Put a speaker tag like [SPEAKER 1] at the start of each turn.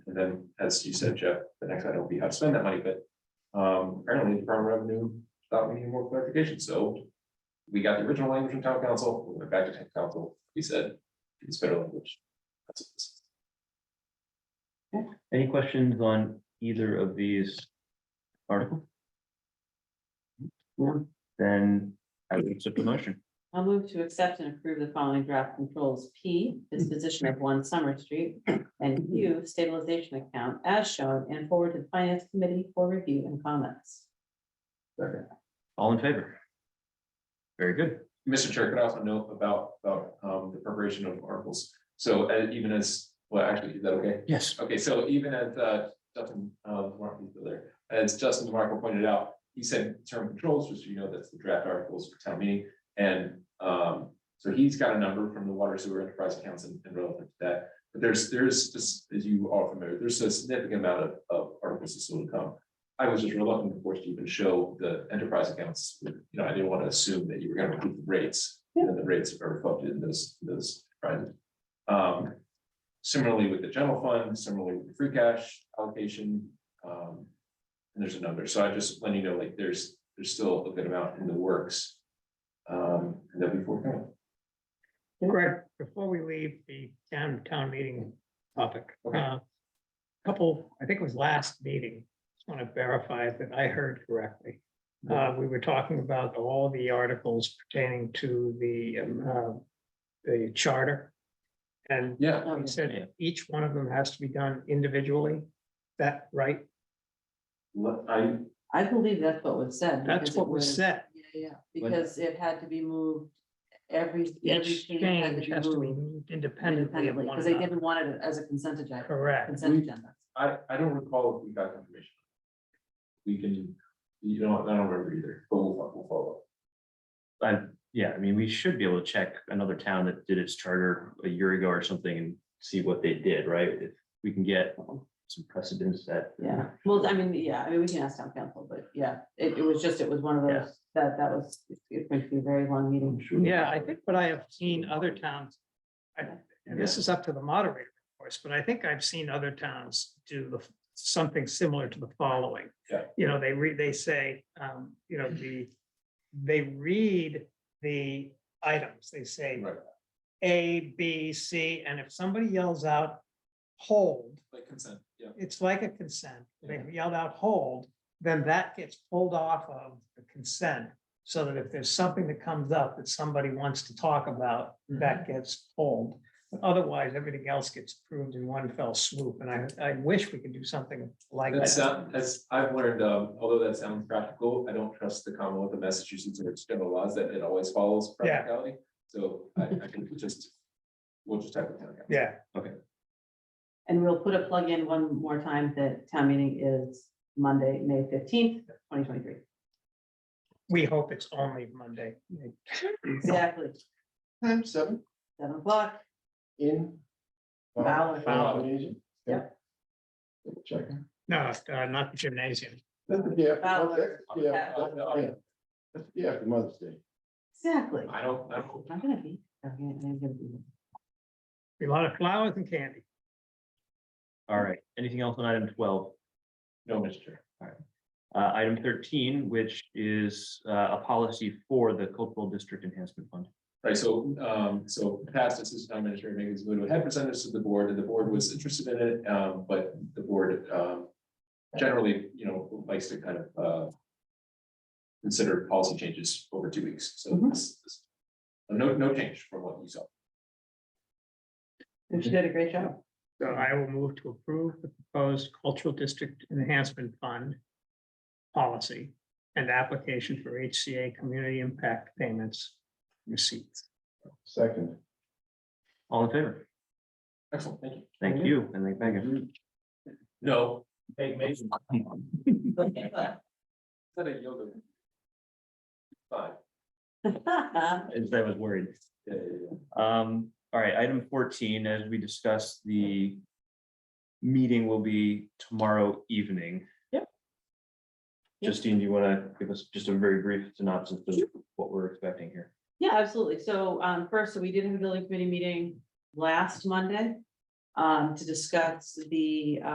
[SPEAKER 1] And then, as you said, Jeff, the next item will be how to spend that money, but um, apparently the Department of Revenue thought we needed more clarification, so we got the original language from town council, we went back to town council, we said, it's federal language. That's what this is.
[SPEAKER 2] Any questions on either of these articles? Then I would accept the motion.
[SPEAKER 3] I'll move to accept and approve the following draft controls, P, disposition of one Summer Street, and Q, stabilization account as shown and forward to the Finance Committee for review and comments.
[SPEAKER 1] Second.
[SPEAKER 2] All in favor? Very good.
[SPEAKER 1] Mr. Chair, could I also note about, about, um, the preparation of articles, so uh, even as, well, actually, is that okay?
[SPEAKER 2] Yes.
[SPEAKER 1] Okay, so even as uh, Justin, uh, DeMarco is still there, as Justin DeMarco pointed out, he said term controls, just so you know, that's the draft articles for town meeting. And um, so he's got a number from the water sewer enterprise accounts and and relevant to that. But there's, there's just, as you are familiar, there's a significant amount of, of articles that still to come. I was just reluctant, of course, to even show the enterprise accounts. You know, I didn't want to assume that you were going to include the rates, and then the rates are reflected in those, those. right? Um, Similarly with the general fund, similarly with the free cash allocation. um, And there's another, so I just let you know, like, there's, there's still a good amount in the works. Um, and that before,
[SPEAKER 4] Greg, before we leave the town, town meeting topic,
[SPEAKER 1] Okay.
[SPEAKER 4] uh, couple, I think it was last meeting, just want to verify that I heard correctly. Uh, we were talking about all the articles pertaining to the, um, uh, the charter. And
[SPEAKER 1] yeah,
[SPEAKER 3] Oh,
[SPEAKER 4] you
[SPEAKER 3] yeah.
[SPEAKER 4] said each one of them has to be done individually, Is that right?
[SPEAKER 1] let- I,
[SPEAKER 3] I believe that's what was said.
[SPEAKER 4] That's
[SPEAKER 3] because it
[SPEAKER 4] what was said.
[SPEAKER 3] Yeah, yeah, because it had to be moved every. every
[SPEAKER 4] Each
[SPEAKER 3] change had
[SPEAKER 4] change has to be
[SPEAKER 3] moved
[SPEAKER 4] moved independently of
[SPEAKER 3] Independently,
[SPEAKER 4] one
[SPEAKER 3] because they
[SPEAKER 4] another.
[SPEAKER 3] didn't want it as a consent agenda,
[SPEAKER 4] Correct.
[SPEAKER 3] consent agenda.
[SPEAKER 1] I, I don't recall if we got confirmation. We can, you know, I don't remember either, but we'll, fo- we'll follow. up.
[SPEAKER 2] I yeah, I mean, we should be able to check another town that did its charter a year ago or something and see what they did, right? If we can get some precedence that.
[SPEAKER 3] Yeah, well, I mean, yeah, I mean, we can ask town council, but yeah, it, it was just, it was one of
[SPEAKER 2] Yeah.
[SPEAKER 3] those, that, that was, it's going to be a very long meeting.
[SPEAKER 4] Yeah, I think what I have seen other towns, I, and this is up to the moderator, of course, but I think I've seen other towns do the, something similar to the following.
[SPEAKER 1] Yeah.
[SPEAKER 4] You know, they read, they say, um, you know, the, they read the items, they say
[SPEAKER 1] Right,
[SPEAKER 4] A, B, C, and if somebody yells out, hold,
[SPEAKER 1] like consent, yeah.
[SPEAKER 4] it's like a consent. If
[SPEAKER 1] Yeah.
[SPEAKER 4] They yelled out hold, then that gets pulled off of the consent. So that if there's something that comes up that somebody wants to talk about,
[SPEAKER 1] Mm-hmm.
[SPEAKER 4] that gets pulled. But Otherwise, everything else gets approved in one fell swoop. And I, I wish we could do something like
[SPEAKER 1] That's, uh,
[SPEAKER 4] that.
[SPEAKER 1] as I've learned, um, although that sounds practical, I don't trust the Commonwealth of Massachusetts or its general laws that it always follows
[SPEAKER 4] Yeah.
[SPEAKER 1] practicality. So I, I can just, we'll just type it down.
[SPEAKER 4] Yeah,
[SPEAKER 3] And we'll put a plug in one more time that town meeting is Monday, May fifteenth, twenty twenty-three.
[SPEAKER 4] we hope it's only Monday.
[SPEAKER 3] Exactly,
[SPEAKER 5] Time seven
[SPEAKER 3] seven o'clock.
[SPEAKER 5] in. uh,
[SPEAKER 3] Fowler.
[SPEAKER 5] Fowler. Yeah. Check.
[SPEAKER 4] No, uh, not the gymnasium.
[SPEAKER 5] That's the day after-
[SPEAKER 3] Fowler.
[SPEAKER 5] that's the day
[SPEAKER 3] Yeah.
[SPEAKER 5] after-
[SPEAKER 1] uh,
[SPEAKER 5] yeah. That's the day after Mother's Day.
[SPEAKER 3] Exactly.
[SPEAKER 1] I don't, I don't,
[SPEAKER 3] I'm gonna be, I'm gonna- I'm gonna be.
[SPEAKER 4] A lot of flowers and candy.
[SPEAKER 2] All right, anything else on item twelve?
[SPEAKER 1] no, Mr. Chair.
[SPEAKER 2] Uh, item thirteen, which is uh, a policy for the cultural district enhancement fund.
[SPEAKER 1] Right, so, um, so past assistant town administrator Megan Zamudo had presented this to the board, and the board was interested in it, um, but the board, um. Generally, you know, likes to kind of, uh. Consider policy changes over two weeks, so
[SPEAKER 3] Mhm.
[SPEAKER 1] this, this. No, no change from what you saw.
[SPEAKER 3] She did a great job.
[SPEAKER 4] So I will move to approve the proposed cultural district enhancement fund policy and application for HCA community impact payments receipts.
[SPEAKER 5] Second.
[SPEAKER 2] All in favor?
[SPEAKER 1] Excellent, thank you.
[SPEAKER 2] Thank you, and thank Megan.
[SPEAKER 1] No.
[SPEAKER 3] Okay.
[SPEAKER 1] Is that a yoga? Fine.
[SPEAKER 2] As I was worried.
[SPEAKER 1] Yeah, yeah, yeah.
[SPEAKER 2] Um, all right, item fourteen, as we discussed, the meeting will be tomorrow evening.
[SPEAKER 3] Yep.
[SPEAKER 2] Justine, do you want to give us just a very brief synopsis of what we're expecting here?
[SPEAKER 3] Yeah, absolutely. So um first, so we did have a building committee meeting last Monday um to discuss the